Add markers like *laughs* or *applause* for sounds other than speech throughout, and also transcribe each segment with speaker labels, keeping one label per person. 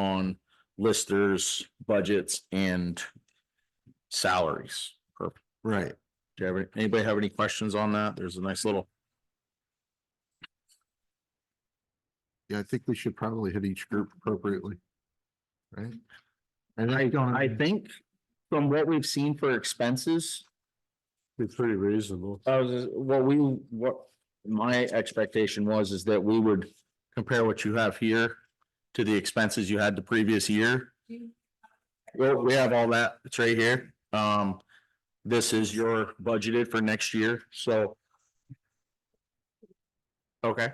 Speaker 1: on listers, budgets and salaries. Perfect.
Speaker 2: Right.
Speaker 1: Do you have, any- anybody have any questions on that? There's a nice little,
Speaker 2: Yeah, I think we should probably hit each group appropriately. Right? And
Speaker 1: I,
Speaker 2: that's gonna
Speaker 1: I
Speaker 2: be-
Speaker 1: think from what we've seen for expenses,
Speaker 2: It's pretty reasonable.
Speaker 1: I was, what we, what my expectation was is that we would compare what you have here to the expenses you had the previous year. Well, we have all that, it's right here. Um, this is your budgeted for next year, so. Okay.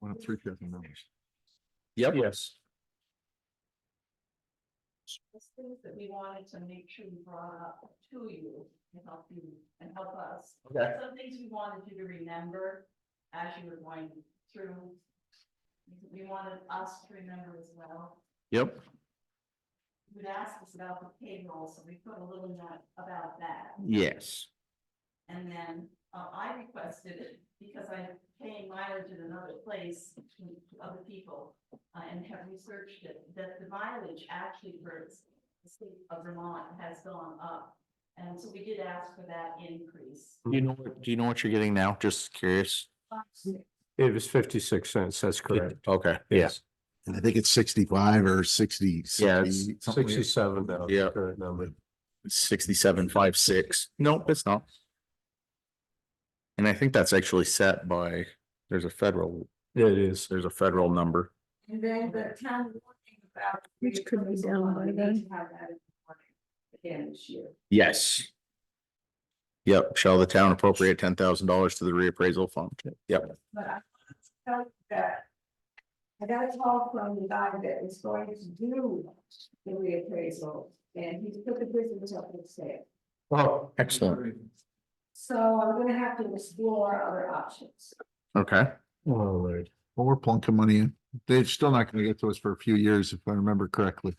Speaker 2: One of three thousand dollars.
Speaker 1: Yep. Yes.
Speaker 3: There's things that we wanted to make sure we brought up to you and help you and help us.
Speaker 1: Okay.
Speaker 3: Some things we wanted you to remember as you were going through. We wanted us to remember as well.
Speaker 1: Yep,
Speaker 3: You'd asked us about the payroll, so we put a little note about that.
Speaker 1: yes.
Speaker 3: And then uh, I requested, it because I'm paying mileage in another place to other people, uh, and have researched it, that the mileage actually for the state of Vermont has gone up. And so we did ask for that increase.
Speaker 1: Do You know, what- do you know what you're getting now? Just curious.
Speaker 4: It was fifty-six cents, that's correct.
Speaker 1: Okay.
Speaker 4: Yes.
Speaker 2: And I think it's sixty-five or sixty.
Speaker 1: Yeah, it's
Speaker 2: 68, something like that.
Speaker 4: Sixty-seven now.
Speaker 1: Yeah.
Speaker 4: Current number.
Speaker 1: Sixty-seven, five, six. Nope, it's not. And I think that's actually set by, there's a federal,
Speaker 4: It is.
Speaker 1: there's a federal number.
Speaker 3: And then the town warning about.
Speaker 5: Which could be down by
Speaker 3: We need
Speaker 5: then.
Speaker 3: to have that in the morning Again this year.
Speaker 1: Yes. Yep, shall the town appropriate ten thousand dollars to the reappraisal fund? Yep,
Speaker 5: But I wanted to tell you that. I got a call from the guy that was going to do the reappraisal and he put the business up for sale.
Speaker 4: Oh,
Speaker 1: excellent.
Speaker 5: So I'm gonna have to explore other options.
Speaker 1: okay,
Speaker 4: Oh, Lord. *laughs*
Speaker 2: Well, we're plunking money in. They're still not gonna get to us for a few years, if I remember correctly.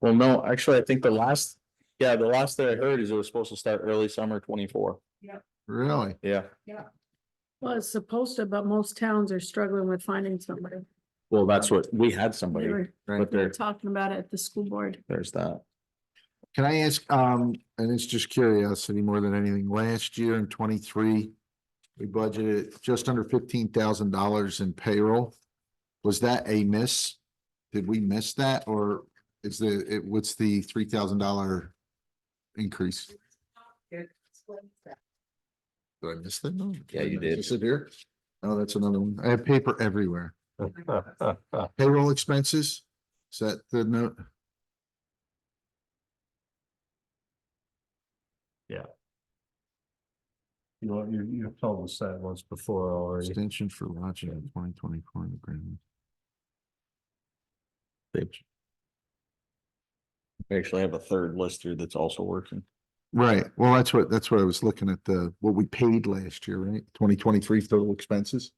Speaker 1: well, no, actually, I think the last, yeah, the last that I heard is it was supposed to start early summer twenty-four.
Speaker 2: Really?
Speaker 1: Yeah.
Speaker 6: Well, it's supposed to, but most towns are struggling with finding somebody.
Speaker 1: Well, that's what, we had
Speaker 6: They
Speaker 1: somebody,
Speaker 6: were
Speaker 1: but
Speaker 6: they were
Speaker 1: there,
Speaker 6: talking about it at the school board.
Speaker 1: there's that.
Speaker 2: Can I ask, um, and it's just curiosity more than anything, last year in twenty-three, we budgeted just under fifteen thousand dollars in payroll. Was that a miss? Did we miss that or is the, it, what's the three thousand dollar increase? Did I miss that? No.
Speaker 1: Yeah, you did.
Speaker 2: Is it here? Oh, that's another one. I have paper everywhere.
Speaker 4: Well,
Speaker 2: Payroll expenses? Is that the note?
Speaker 4: You, you've told us that once before already.
Speaker 2: Extension for lodging in twenty twenty-four in the grand.
Speaker 1: We actually have a third lister that's also working.
Speaker 2: Right, well, that's what, that's what I was looking at, the, what we paid last year, right? Twenty twenty-three total expenses?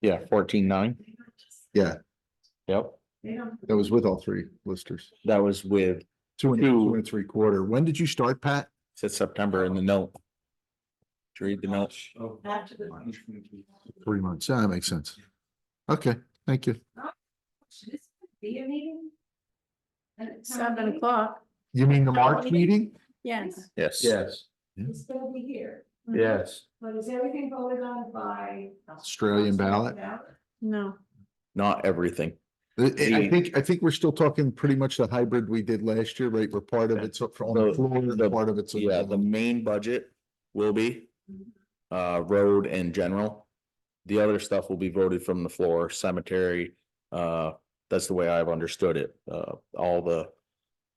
Speaker 1: Yeah, fourteen-nine.
Speaker 3: They don't just-
Speaker 2: Yeah,
Speaker 1: Yep.
Speaker 3: They don't.
Speaker 2: that was with all three listers.
Speaker 1: That was with,
Speaker 2: Two and,
Speaker 1: Two.
Speaker 2: two and three quarter. When did you start, Pat?
Speaker 1: said September in the note. Did you read the note?
Speaker 3: After the.
Speaker 2: Three months. Yeah, That makes sense. Okay, thank you.
Speaker 3: Should this be a meeting? And it's not
Speaker 6: Seven
Speaker 3: really-
Speaker 6: o'clock,
Speaker 2: You mean the March meeting?
Speaker 6: yes.
Speaker 1: Yes.
Speaker 4: Yes,
Speaker 5: It's gonna be here,
Speaker 4: yes.
Speaker 5: but is everything voted on by?
Speaker 2: Australian ballot?
Speaker 6: No,
Speaker 1: Not everything.
Speaker 2: Uh, I- I I
Speaker 1: Yeah.
Speaker 2: think, I think we're still talking pretty much the hybrid we did last year, right? We're part of it's up for- on
Speaker 1: The-
Speaker 2: the floor,
Speaker 1: the-
Speaker 2: and part of it's. on the
Speaker 1: Yeah, the
Speaker 2: ballot.
Speaker 1: main budget will be uh, road and general. The other stuff will be voted from the floor, cemetery, uh, that's the way I've understood it, uh, all the,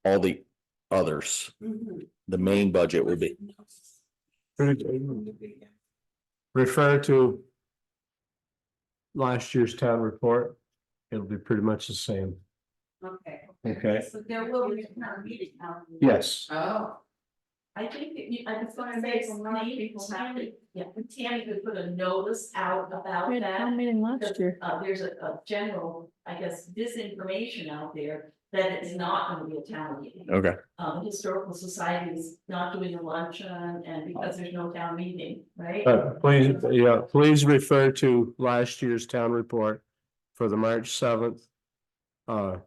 Speaker 1: all the others.
Speaker 5: Mm-hmm.
Speaker 1: The main budget will be,
Speaker 4: Refer to last year's town report. It'll be pretty much the same.
Speaker 3: Okay.
Speaker 4: Okay.
Speaker 3: So there will be a town meeting. um,
Speaker 4: Yes.
Speaker 3: Oh. I think that you, I just want to say, maybe Tammy, yeah, Tammy could put a notice out about
Speaker 6: we had a town
Speaker 3: that.
Speaker 6: meeting last year.
Speaker 3: Uh, there's a, a general, I guess, disinformation out there that it's not gonna be a town meeting.
Speaker 1: okay,
Speaker 3: Um, historical society is not doing a luncheon and because there's no town meeting, right?
Speaker 4: Uh, please, yeah, please refer to last year's town report for the March seventh. Uh,